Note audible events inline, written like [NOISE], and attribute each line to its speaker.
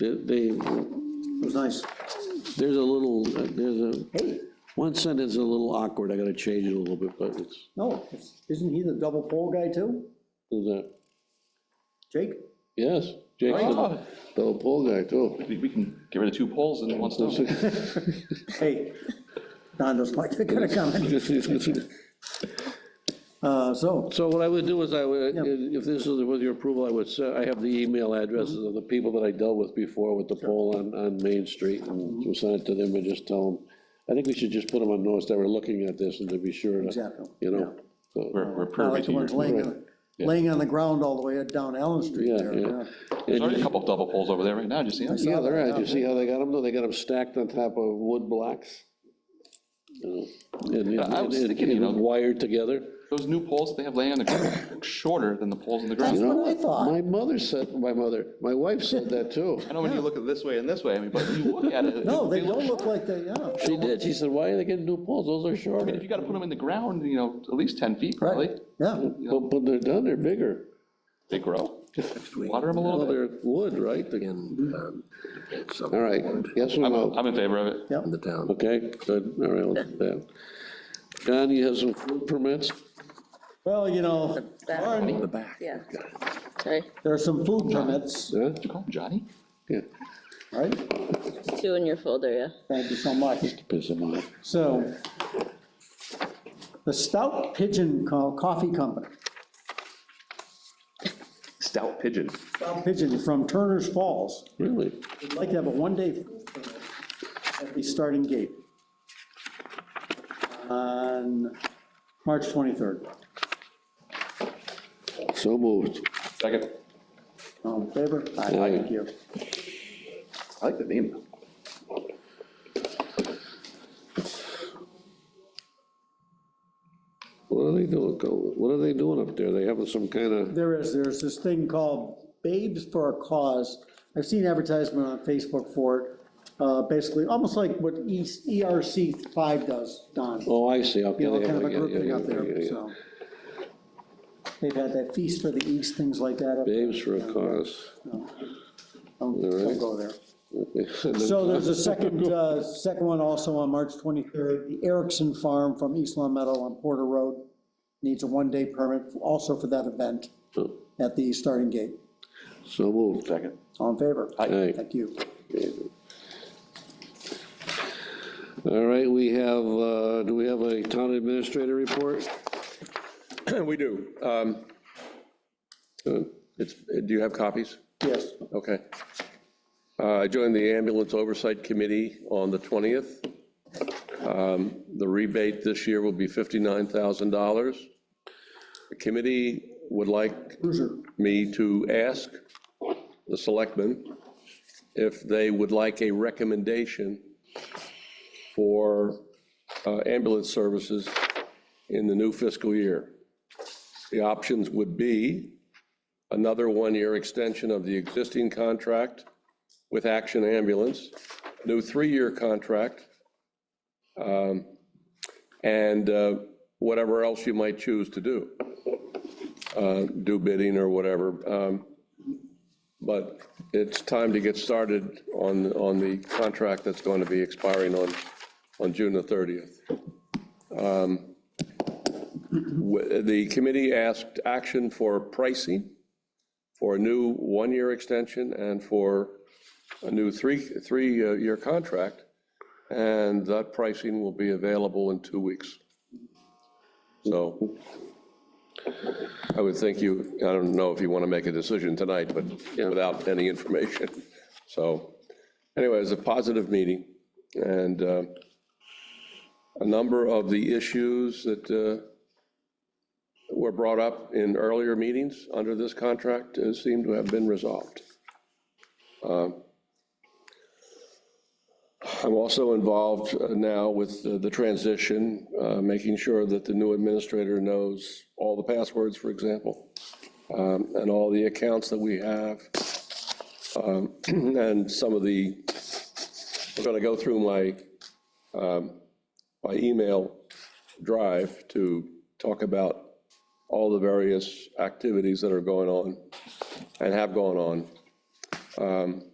Speaker 1: They,
Speaker 2: It was nice.
Speaker 1: there's a little, there's a, one sentence is a little awkward, I gotta change it a little bit, but it's,
Speaker 2: No, it's- isn't he the double pole guy too?
Speaker 1: is that,
Speaker 2: Jake?
Speaker 1: yes, Jake's the
Speaker 3: Oh.
Speaker 1: the pole guy too. [LAUGHS]
Speaker 3: We, we can get rid of two poles and one stone.
Speaker 1: [LAUGHS]
Speaker 2: Hey, Don doesn't like that kind of comment. Uh, so,
Speaker 1: So what I would do is I would, if this is with your approval, I would, se- I have the email addresses of the people that I dealt with before with the poll on, on Main Street. and We'll send it to them and just tell them, I think we should just put them on notice that we're looking at this and to be sure to,
Speaker 2: exactly.
Speaker 1: you know. so-
Speaker 3: We're, we're
Speaker 2: I
Speaker 3: privy
Speaker 2: like
Speaker 3: to
Speaker 2: the ones
Speaker 3: your.
Speaker 2: laying, on- laying on the ground all the way down Allen Street
Speaker 1: Yeah,
Speaker 2: there.
Speaker 1: yeah.
Speaker 3: There's
Speaker 1: And
Speaker 3: already a couple of double poles over there right now, did you see them?
Speaker 1: Yeah, they're at, you see how they got them, though, they got them stacked on top of wood blocks? You know, And,
Speaker 3: I
Speaker 1: and,
Speaker 3: was
Speaker 1: and
Speaker 3: thinking, you know-
Speaker 1: and wired together,
Speaker 3: Those new poles they have laying on the ground look shorter than the poles in the
Speaker 1: you
Speaker 3: ground.
Speaker 1: know?
Speaker 2: what I thought.
Speaker 1: My mother said, my mother, my wife said that too.
Speaker 3: I know when you look at this way and this way, I mean, but when you look at it.
Speaker 2: No, they don't
Speaker 3: short.
Speaker 2: look like they, yeah.
Speaker 1: She did, she said, why are they getting new poles, those are
Speaker 3: I mean, if
Speaker 1: shorter.
Speaker 3: you gotta put them in the ground, you know, at least ten feet probably,
Speaker 2: Right, yeah.
Speaker 1: But, but they're done, they're bigger.
Speaker 3: they grow. Water them a
Speaker 1: Well,
Speaker 3: little bit.
Speaker 1: they're wood, right? They're- Mm-hmm.
Speaker 4: in, um,
Speaker 1: All right, yes or no?
Speaker 3: I'm in favor of it.
Speaker 4: in the town.
Speaker 1: Okay, good, all right, let's do that. John, you have some food permits?
Speaker 2: Well, you know,
Speaker 5: That-
Speaker 2: Warren,
Speaker 4: The back.
Speaker 5: Yeah, sorry,
Speaker 2: there are some food permits,
Speaker 1: Huh?
Speaker 3: Did you call him Johnny?
Speaker 1: Yeah,
Speaker 2: right?
Speaker 5: two in your folder, yeah.
Speaker 2: Thank you so much.
Speaker 1: piss them off.
Speaker 2: So the Stout Pigeon Co- Coffee Company,
Speaker 3: Stout pigeon.
Speaker 2: Stout Pigeon from Turner's Falls,
Speaker 1: Really?
Speaker 2: would like to have a one-day food permit at the starting gate on March 23rd.
Speaker 1: So moved.
Speaker 3: Second.
Speaker 2: All in favor? Aye.
Speaker 1: Aye.
Speaker 2: Thank you.
Speaker 3: I like the name.
Speaker 1: What are they doing, Cole? what are they doing up there? They having some kind of,
Speaker 2: There is, there's this thing called Babes for a Cause. I've seen advertisement on Facebook for it, uh, basically, almost like what E, East- ERC 5 does, Don.
Speaker 1: oh, I see, okay.
Speaker 2: you know,
Speaker 1: they have
Speaker 2: kind of a
Speaker 1: yeah,
Speaker 2: group
Speaker 1: yeah,
Speaker 2: thing
Speaker 1: yeah,
Speaker 2: up there,
Speaker 1: yeah, yeah.
Speaker 2: so. They've had that feast for the east, things like that. up there.
Speaker 1: Babes for a cause.
Speaker 2: Don't don't go there.
Speaker 1: [LAUGHS] So
Speaker 2: So there's a second, uh, second one also on March 23rd, the Erickson Farm from East Long Meadow on Porter Road needs a one-day permit also for that event at the starting gate.
Speaker 1: So moved.
Speaker 3: Second.
Speaker 2: All in favor?
Speaker 1: Aye.
Speaker 2: Thank you.
Speaker 1: All right, we have, uh, do we have a town administrator report?
Speaker 6: [CLEARS THROAT] We do. Um, uh, It's, do you have copies?
Speaker 2: Yes.
Speaker 6: Okay. Uh, I joined the ambulance oversight committee on the 20th. Um, The rebate this year will be $59,000. The committee would like
Speaker 2: Cruiser.
Speaker 6: me to ask the selectmen if they would like a recommendation for uh, ambulance services in the new fiscal year. The options would be another one-year extension of the existing contract with Action Ambulance, new three-year contract, um, and uh, whatever else you might choose to do uh, do bidding or whatever. um, But it's time to get started on, on the contract that's going to be expiring on, on June the 30th. Um, w- The committee asked action for pricing for a new one-year extension and for a new three, three-year contract. And that pricing will be available in two weeks. So I would think you, I don't know if you want to make a decision tonight, but without any information. So anyway, it was a positive meeting, and uh, a number of the issues that uh, were brought up in earlier meetings under this contract uh, seem to have been resolved. Uh, I'm also involved uh, now with the the transition, uh, making sure that the new administrator knows all the passwords, for example, um, and all the accounts that we have. Um, [CLEARS THROAT] And some of the, I'm going to go through my, um, my email drive to talk about all the various activities that are going on and have gone on. Um,